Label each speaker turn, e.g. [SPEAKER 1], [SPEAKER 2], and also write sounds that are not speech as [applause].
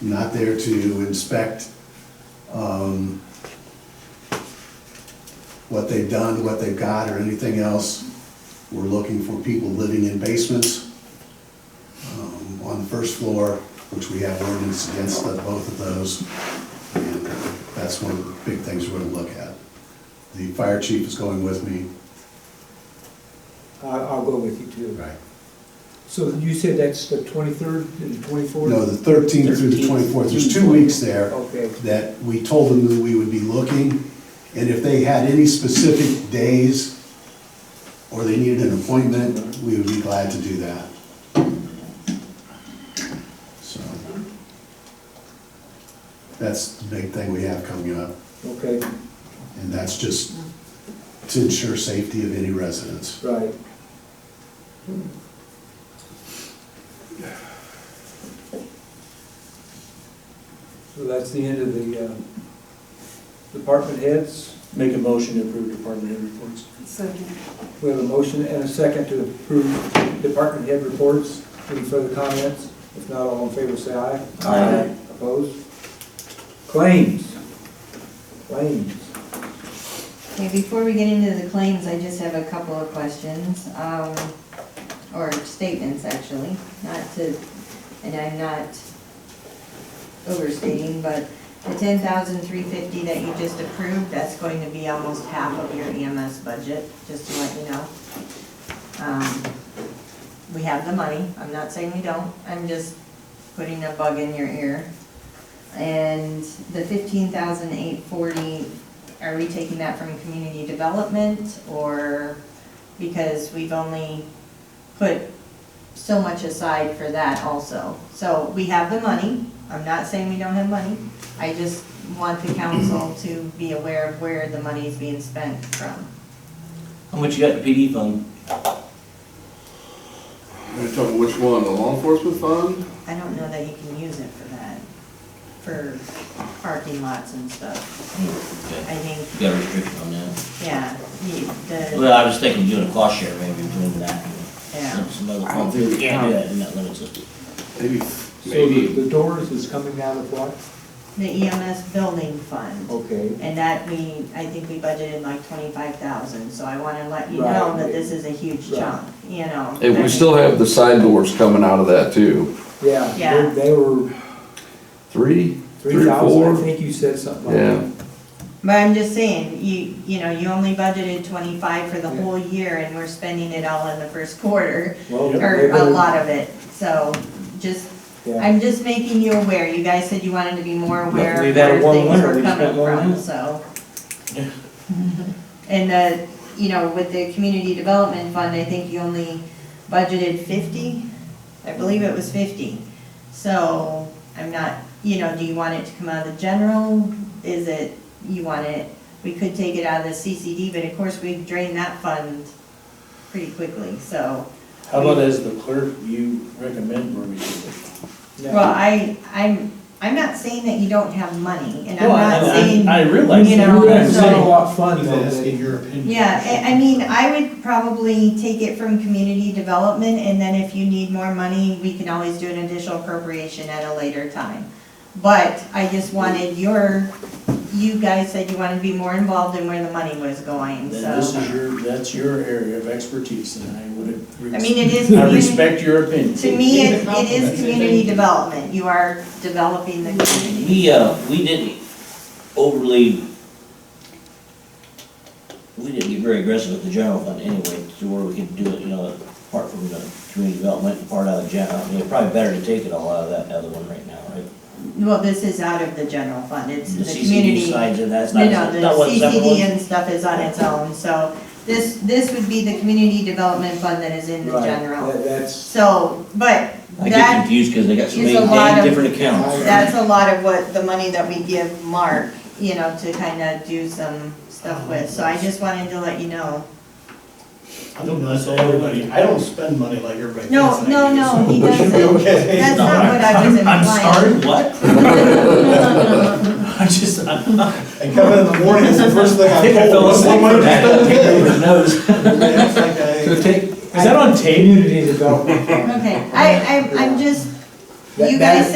[SPEAKER 1] not there to inspect um, what they've done, what they've got, or anything else. We're looking for people living in basements um, on the first floor, which we have ordinance against the- both of those. And That's one of the big things we're gonna look at. The fire chief is going with me.
[SPEAKER 2] I- I'll go with you too.
[SPEAKER 1] Right.
[SPEAKER 2] So you said that's the 23rd and 24th?
[SPEAKER 1] No, the thirteenth through the
[SPEAKER 2] 13th.
[SPEAKER 1] twenty-fourth, there's two weeks there.
[SPEAKER 2] Okay.
[SPEAKER 1] That we told them that we would be looking, and if they had any specific days or they needed an appointment, we would be glad to do that. So. That's the big thing we have coming up,
[SPEAKER 2] Okay,
[SPEAKER 1] and that's just to ensure safety of any residents.
[SPEAKER 2] right. So that's the end of the uh, department heads.
[SPEAKER 3] Make a motion to approve department head reports.
[SPEAKER 4] Second.
[SPEAKER 2] We have a motion and a second to approve department head reports. Any further comments? If not, all in favor, say aye.
[SPEAKER 3] Aye.
[SPEAKER 2] Opposed? Claims. Claims.
[SPEAKER 5] Okay, before we get into the claims, I just have a couple of questions, um, or statements actually, not to, and I'm not overstating, but the ten thousand three fifty that you just approved, that's going to be almost half of your EMS budget, just to let you know. Um, We have the money, I'm not saying we don't, I'm just putting a bug in your ear. And the fifteen thousand eight forty are we taking that from community development or, because we've only put so much aside for that also. So we have the money, I'm not saying we don't have money, I just want the council to be aware of where the money is being spent from.
[SPEAKER 3] How much you got in PD fund?
[SPEAKER 6] Are you talking which one, the law enforcement fund?
[SPEAKER 5] I don't know that you can use it for that, for parking lots and stuff. I think,
[SPEAKER 7] Got a restriction on that.
[SPEAKER 5] yeah, you- the,
[SPEAKER 7] Well, I was thinking doing a cost share maybe between that
[SPEAKER 5] yeah.
[SPEAKER 7] and some other
[SPEAKER 6] I don't
[SPEAKER 7] company.
[SPEAKER 6] think we
[SPEAKER 7] We can't do
[SPEAKER 6] can.
[SPEAKER 7] that in that limit system.
[SPEAKER 6] Maybe,
[SPEAKER 2] So the
[SPEAKER 6] maybe.
[SPEAKER 2] the doors is coming out of what?
[SPEAKER 5] The EMS building fund.
[SPEAKER 2] Okay,
[SPEAKER 5] And that we, I think we budgeted like twenty-five thousand, so I wanna let you
[SPEAKER 2] Right.
[SPEAKER 5] know that this is a huge
[SPEAKER 2] Right.
[SPEAKER 5] chunk, you know.
[SPEAKER 8] If we still have the side doors coming out of that too,
[SPEAKER 2] yeah.
[SPEAKER 5] Yeah.
[SPEAKER 2] They they were
[SPEAKER 8] three, three,
[SPEAKER 2] 3,000, I
[SPEAKER 8] four,
[SPEAKER 2] think you said something like
[SPEAKER 8] yeah.
[SPEAKER 2] that.
[SPEAKER 5] But I'm just saying, you, you know, you only budgeted twenty-five for the
[SPEAKER 2] Yeah.
[SPEAKER 5] whole year and we're spending it all in the first quarter,
[SPEAKER 2] Well, they
[SPEAKER 5] or a
[SPEAKER 2] better-
[SPEAKER 5] lot of it, so just,
[SPEAKER 2] Yeah,
[SPEAKER 5] I'm just making you aware, you guys said you wanted to be more aware
[SPEAKER 3] We've
[SPEAKER 5] of
[SPEAKER 3] had
[SPEAKER 5] where
[SPEAKER 3] one
[SPEAKER 5] things
[SPEAKER 3] winter,
[SPEAKER 5] were
[SPEAKER 3] we just
[SPEAKER 5] coming
[SPEAKER 3] got one
[SPEAKER 5] from,
[SPEAKER 3] winter.
[SPEAKER 5] so.
[SPEAKER 3] [laughs]
[SPEAKER 5] [laughs] And the, you know, with the community development fund, I think you only budgeted fifty, I believe it was fifty. So, I'm not, you know, do you want it to come out of the general, is it, you want it, we could take it out of the CCD, but of course, we drained that fund pretty quickly, so.
[SPEAKER 3] How about as the clerk, you recommend where we should go?
[SPEAKER 5] Well,
[SPEAKER 2] yeah.
[SPEAKER 5] I, I'm, I'm not saying that you don't have money, and I'm
[SPEAKER 3] No, I-
[SPEAKER 5] not
[SPEAKER 3] I-
[SPEAKER 5] saying,
[SPEAKER 3] I realize
[SPEAKER 5] you
[SPEAKER 3] that.
[SPEAKER 5] know,
[SPEAKER 2] You guys
[SPEAKER 3] so-
[SPEAKER 2] had a lot of fun, though.
[SPEAKER 1] your opinion.
[SPEAKER 5] yeah, I, I mean, I would probably take it from community development, and then if you need more money, we can always do an additional appropriation at a later time. But I just wanted your, you guys said you wanted to be more involved in where the money was going,
[SPEAKER 3] Then this
[SPEAKER 5] so.
[SPEAKER 3] is your, that's your area of expertise, and I would.
[SPEAKER 5] I mean, it is,
[SPEAKER 3] I
[SPEAKER 5] communi-
[SPEAKER 3] respect your opinion.
[SPEAKER 5] to me, it it is community development, you are developing the community.
[SPEAKER 7] We, uh, we didn't overly, we didn't get very aggressive with the general fund anyway, to where we could do it, you know, apart from the community development, and part out of the general. I mean, it's probably better to take it all out of that other one right now, right?
[SPEAKER 5] Well, this is out of the general fund, it's the
[SPEAKER 7] CCD
[SPEAKER 5] community.
[SPEAKER 7] sides and that's
[SPEAKER 5] No,
[SPEAKER 7] not,
[SPEAKER 5] no, the
[SPEAKER 7] not what separate
[SPEAKER 5] CCD
[SPEAKER 7] ones.
[SPEAKER 5] and stuff is on its own, so this, this would be the community development fund that is in the
[SPEAKER 2] Right,
[SPEAKER 5] general.
[SPEAKER 2] that- That's,
[SPEAKER 5] So, but
[SPEAKER 7] I get
[SPEAKER 5] that,
[SPEAKER 7] confused because they got so
[SPEAKER 5] is
[SPEAKER 7] many
[SPEAKER 5] a lot
[SPEAKER 7] dang
[SPEAKER 5] of-
[SPEAKER 7] different accounts.
[SPEAKER 5] that's a lot of what, the money that we give Mark, you know, to kind of do some stuff with, so I just wanted to let you know.
[SPEAKER 9] I don't know, that's all everybody, I don't
[SPEAKER 3] [laughs]
[SPEAKER 9] spend money like everybody thinks
[SPEAKER 5] No,
[SPEAKER 9] I
[SPEAKER 5] no,
[SPEAKER 9] do,
[SPEAKER 5] no, he
[SPEAKER 9] so
[SPEAKER 5] doesn't,
[SPEAKER 9] It should be okay.
[SPEAKER 5] that's not what I was implying.
[SPEAKER 3] I'm sorry, what? I just, I
[SPEAKER 9] I come in in the morning, it's the first thing I
[SPEAKER 3] think I fell
[SPEAKER 9] pull, what
[SPEAKER 3] asleep
[SPEAKER 9] am I
[SPEAKER 3] for [laughs]
[SPEAKER 9] gonna
[SPEAKER 3] that.
[SPEAKER 9] spend today?
[SPEAKER 3] Who
[SPEAKER 9] Everybody acts like I-
[SPEAKER 3] [laughs] knows? Is that on
[SPEAKER 5] [laughs]
[SPEAKER 3] tape?
[SPEAKER 2] community development.
[SPEAKER 5] Okay, I, I, I'm just,
[SPEAKER 2] That-
[SPEAKER 5] you
[SPEAKER 2] that
[SPEAKER 5] guys
[SPEAKER 2] is-